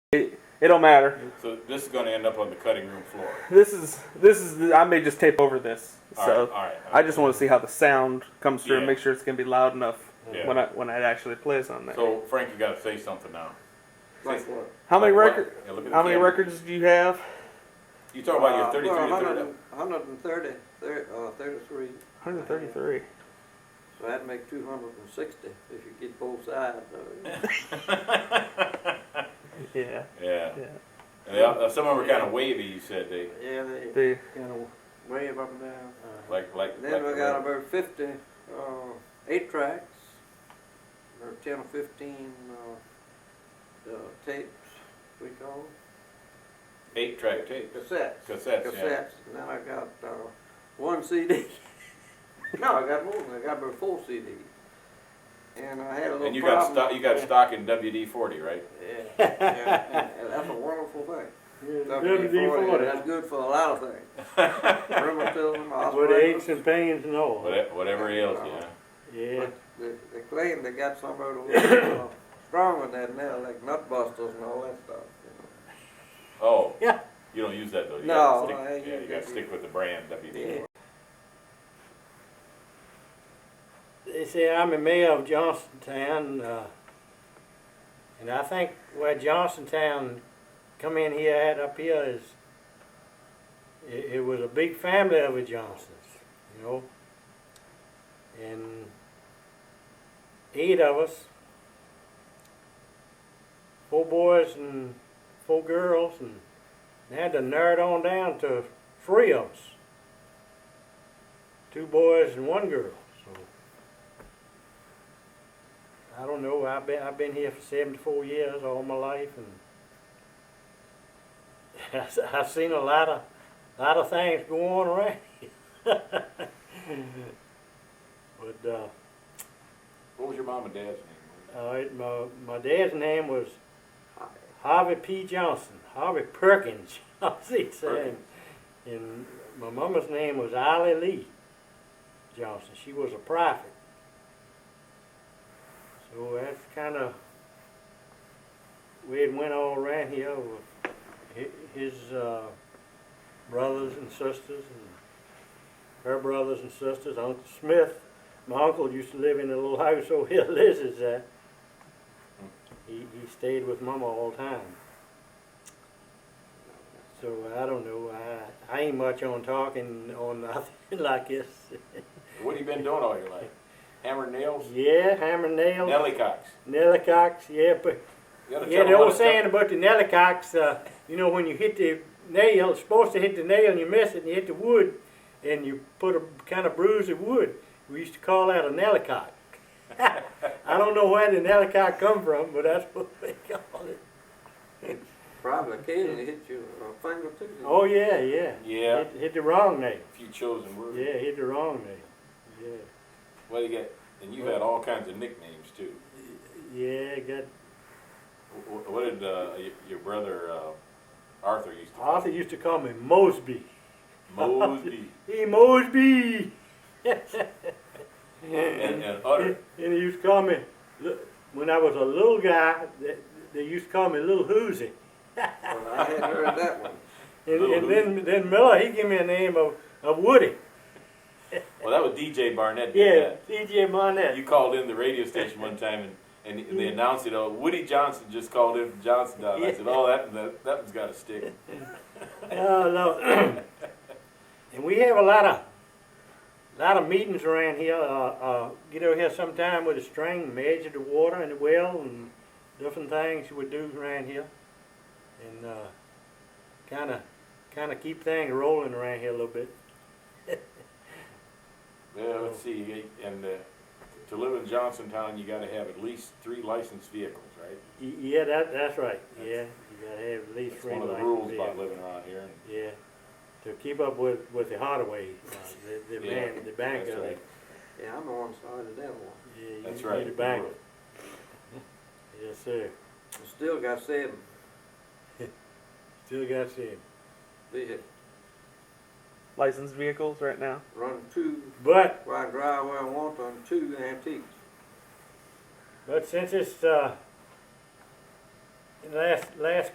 It, it don't matter. So this is going to end up on the cutting room floor. This is this is. the- I may just tape over this. All right, so all right, I just want to see how the sound comes through and Yeah. make sure it's gonna be loud enough Yeah. when I when it actually plays on there. So Frank, you got to say something now. Like what? how many Like what? record? Yeah, look at the How many camera. records do you have? You talk about your Uh, 33 well, to 30. 100 130, thir- uh, 33. 133. So that'd make 260 if you get both sides of it. Yeah. Yeah. Yeah. And they, all- some of them were kind of wavy. You said they Yeah, they The, kind of wave up and down. Uh, like like. Then like we the got record. about 50 uh, eight tracks, or 10 or 15 uh, uh, tapes, we call eight track tape. them. Cassettes. Cassettes, Cassettes. yeah. And then I got uh, one CD. no, I got more than that. I got about four CDs. And I had a little And you got problem. stock. You got stock in WD-40, right? Yeah, yeah, and- and that's a wonderful thing. WD-40, that's good for a lot of things. Rheumatism, With aches arthritis. and pains and all. Whatever, whatever ails you. Huh? Yeah. But They they claim they got some of the uh, stronger than that now, like nut busters and all that stuff. you Oh. Yeah. You don't use that though. You No, gotta stick- I- yeah, you got to stick with the brand WD-40. know. They say I'm the mayor of Johnstown, uh, and I think where Johnstown come in here at up here is it, it was a big family of the Johnsons, you know, and eight of us, four boys and four girls, and they had to narrow it on down to three of us, two boys and one girl. So. I don't know. I've been I've been here for seventy four years, all my life, and I've seen a lot of lot of things go on around. here. but uh, What was your mom and dad's name? all right, my my dad's name was Harvey P. Johnson, Harvey Perkins Johnson, he said. and my mama's name was Ollie Lee Johnson. She was a prophet. So that's kind of where it went all around here with hi- his uh, brothers and sisters and her brothers and sisters. Uncle Smith, my uncle used to live in a little house over here, Liz's at. He, he stayed with mama all the time. So I don't know. I, I ain't much on talking on nothing like this. What have you been doing all your life? Hammer nails. yeah, hammer nails. Nelly Cox. Nellycocks, yeah, but You gotta yeah, tell them the what old it's- saying about the nellycocks, uh, you know, when you hit the nail, it's supposed to hit the nail and you miss it and you hit the wood and you put a kind of bruise of wood. We used to call that a nellycock. I don't know where the nellycock come from, but that's what they call it. Probably occasionally hit your uh, finger too. Oh yeah, yeah. Yeah. Hit, hit the wrong nail. A few chosen words. Yeah, hit the wrong nail. Yeah. Well, you get, and you've had all kinds of nicknames too. Yeah, got Wh- wh- What did uh, y- your brother uh, Arthur used to call Arthur used to call me Mosby. Mosby Hey Mosby and, and and Utter? and they used to call me li- when I was a little guy. They, they used to call me Little Hoosie. Well, I hadn't heard that one. And, Little and then then Miller he gave me a name of, of Woody. Well, that was DJ Barnett. Yeah, Did C.J. that. Monette. You called in the radio station one time and, and they announced it. Oh, Woody Johnson just called in from Johnsontown. I said, oh, that, that, that one's got to stick. Oh, Lord. and we have a lot of lot of meetings around here. Uh, uh, get over here sometime with a string, measure the water in the well, and different things we do around here, and uh, kind of kind of keep things rolling around here a little bit. Yeah, let's see. And uh, to live in Johnsontown, you got to have at least three licensed vehicles, right? Y- Yeah, that, that's right. Yeah, you gotta have at least That's three one of the license rules vehicles. about living around here. Yeah, to keep up with, with the Hardaway, uh, the, the Yeah, man, the bank that's of right. it. Yeah, I'm the one started that one. Yeah, you- That's you right. The bank. Yes, sir. I Still got seven Still got you. vehicles, licensed vehicles right now. run two, But where I drive where I want to, and two antiques. but since it's uh, last last